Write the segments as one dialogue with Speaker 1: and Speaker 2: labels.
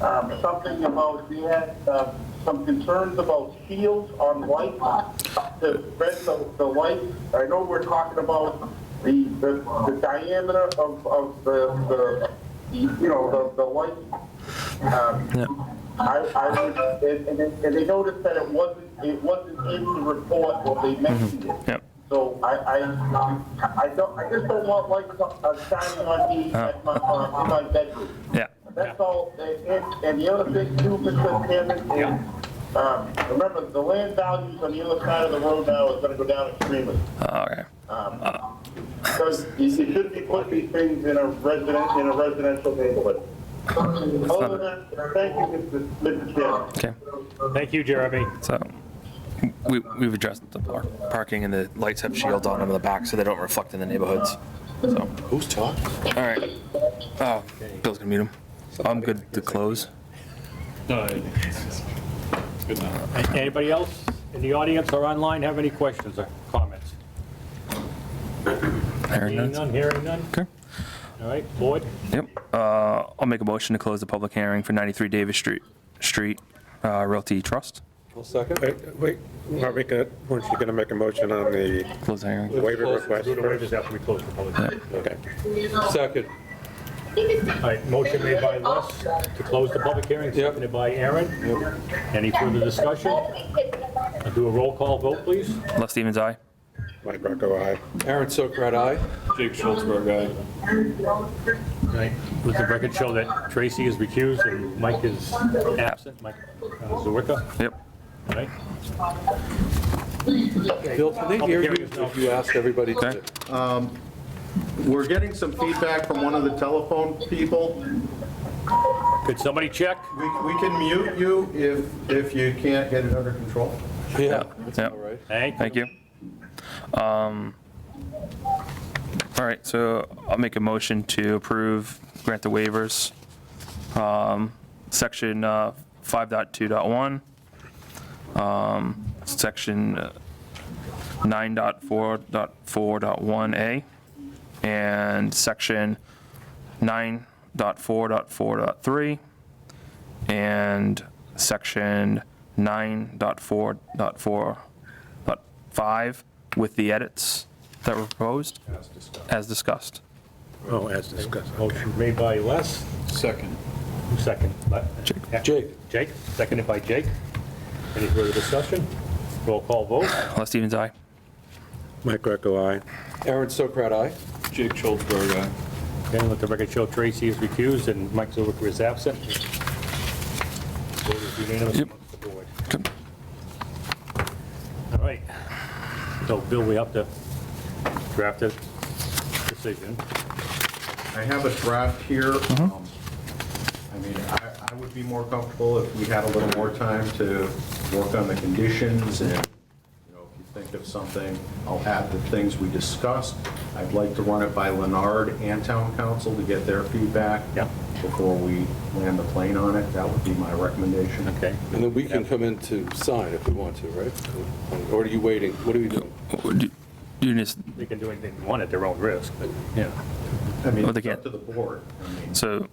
Speaker 1: um, something about, we had uh, some concerns about shields on white lots to spread the, the light. I know we're talking about the, the the diameter of, of the, the, you know, the, the light. Um, I, I, would- and, and and they noticed that it wasn't, it wasn't in the report when they mentioned it.
Speaker 2: Yep.
Speaker 1: So I, I, I don't, I just don't want lights uh, shining on me at my, uh, in my bedroom.
Speaker 2: Yeah.
Speaker 1: That's all, and, and the other thing too, Mr. Chairman, is, um, remember, the land values on the other side of the road now is gonna go down extremely.
Speaker 2: All right.
Speaker 1: Because you you should be putting these things in a resident, in a residential neighborhood. Other than, thank you, Mr. Mr. Chairman.
Speaker 2: Okay.
Speaker 3: Thank you, Jeremy.
Speaker 2: So we, we've addressed the par- parking and the lights have shields on them in the back so they don't reflect in the neighborhoods. So, all
Speaker 4: Who's talking?
Speaker 2: right. Oh, Bill's gonna mute him. I'm good to close.
Speaker 3: Anybody else in the audience or online have any questions or comments?
Speaker 2: Hearing
Speaker 3: Seeing
Speaker 2: none.
Speaker 3: none, hearing none.
Speaker 2: Okay.
Speaker 3: All right, Lloyd?
Speaker 2: Yep. Uh, I'll make a motion to close the public hearing for 93 Davis Street, Street uh, Realty Trust.
Speaker 5: Wait, Wait, aren't we gonna, weren't you gonna make a motion on the
Speaker 2: Close the hearing.
Speaker 5: waiver request?
Speaker 3: Do the waivers after we close the public hearing.
Speaker 5: Okay.
Speaker 4: Second.
Speaker 3: All right, motion made by Les to close the public hearing, seconded by Aaron. Any further discussion? I'll Do a roll call vote, please.
Speaker 2: Les Stevens, aye.
Speaker 5: Mike Rocco, aye.
Speaker 4: Aaron Sokrat, aye.
Speaker 6: Jake Schultzberg, aye.
Speaker 3: All right, Let the record show that Tracy is recused and Mike is absent, Mike uh, Zerwicka.
Speaker 2: Yep.
Speaker 3: All right,
Speaker 4: Bill, can they hear you if you ask everybody
Speaker 2: Okay.
Speaker 4: to?
Speaker 7: We're getting some feedback from one of the telephone people.
Speaker 3: could somebody check?
Speaker 7: We we can mute you if, if you can't get it under control.
Speaker 4: Yeah.
Speaker 2: Yep.
Speaker 4: All right.
Speaker 3: Thank
Speaker 2: Thank you. Um, All right, so I'll make a motion to approve, grant the waivers. Um, Section uh, 5.2.1, um, section uh, 9.4.4.1A, and section 9.4.4.3, and section 9.4.4.5 with the edits that were proposed as discussed.
Speaker 5: Oh, as discussed.
Speaker 3: Motion made by Les,
Speaker 6: Second.
Speaker 3: who second? Le-
Speaker 4: Jake.
Speaker 3: Jake, seconded by Jake. Any further discussion? Roll call vote.
Speaker 2: Les Stevens, aye.
Speaker 5: Mike Rocco, aye.
Speaker 4: Aaron Sokrat, aye.
Speaker 6: Jake Schultzberg, aye.
Speaker 3: Again, let the record show Tracy is recused and Mike Zerwicka is absent. Vote is unanimous
Speaker 2: Yep.
Speaker 3: amongst the board.
Speaker 2: Good.
Speaker 3: All right. So Bill, we have to draft a decision.
Speaker 7: I have a draft here.
Speaker 2: Mm-hmm.
Speaker 7: Um, I mean, I, I would be more comfortable if we had a little more time to work on the conditions and, you know, if you think of something, I'll add the things we discussed. I'd like to run it by Leonard and Town Council to get their feedback.
Speaker 3: Yep.
Speaker 7: Before we land the plane on it, that would be my recommendation.
Speaker 3: Okay.
Speaker 4: And then we can come in to sign if we want to, right? Or are you waiting? What are we doing?
Speaker 2: Do You just,
Speaker 3: They can do anything they want at their own risk, but, yeah.
Speaker 7: I mean,
Speaker 2: Oh, they
Speaker 7: it's
Speaker 2: can't.
Speaker 7: up to the board. I mean,
Speaker 2: so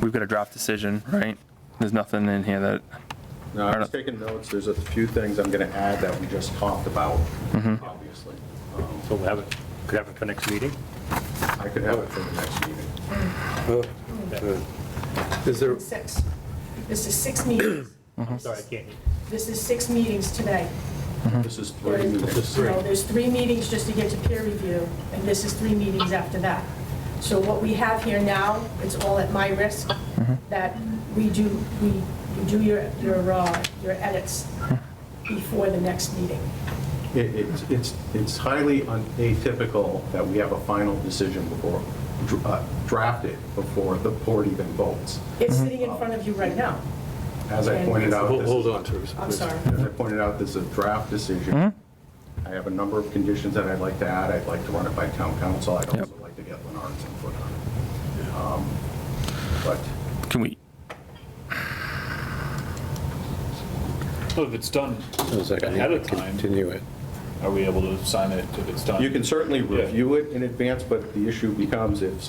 Speaker 2: we've got a draft decision, right? There's nothing in here that,
Speaker 7: No, I was taking notes. There's a few things I'm going to add that we just talked about,
Speaker 4: Mm-hmm.
Speaker 7: obviously. Um,
Speaker 3: So we'll have it, could have it for next meeting.
Speaker 7: I could have it for the next meeting.
Speaker 4: Uh, uh, Is there,
Speaker 8: Six. This is six meetings.
Speaker 3: I'm sorry, I can't.
Speaker 8: This is six meetings today.
Speaker 4: Mm-hmm.
Speaker 7: This is three meetings.
Speaker 8: So there's three meetings just to get to peer review, and this is three meetings after that. So what we have here now, it's all at my risk, that we do, we, you do your, your, uh, your edits before the next meeting.
Speaker 7: It- It's, it's it's highly un- atypical that we have a final decision before, dr- uh, drafted before the board even votes.
Speaker 8: It's sitting in front of you right now.
Speaker 7: As I pointed out,
Speaker 4: hold
Speaker 7: this
Speaker 4: hold
Speaker 7: is
Speaker 4: on, Mm-hmm. Teresa.
Speaker 8: I'm sorry.
Speaker 7: As I pointed out, this is a draft decision. I have a number of conditions that I'd like to add. I'd like to run it by town council. I'd also like to get Lennard's input on it. Um, But
Speaker 2: can we,
Speaker 6: Well, if it's done
Speaker 5: Sounds like I
Speaker 6: ahead
Speaker 5: need
Speaker 6: of
Speaker 5: to
Speaker 6: time,
Speaker 5: continue it.
Speaker 6: are we able to sign it if it's done?
Speaker 7: you can certainly review it in advance, but the issue becomes if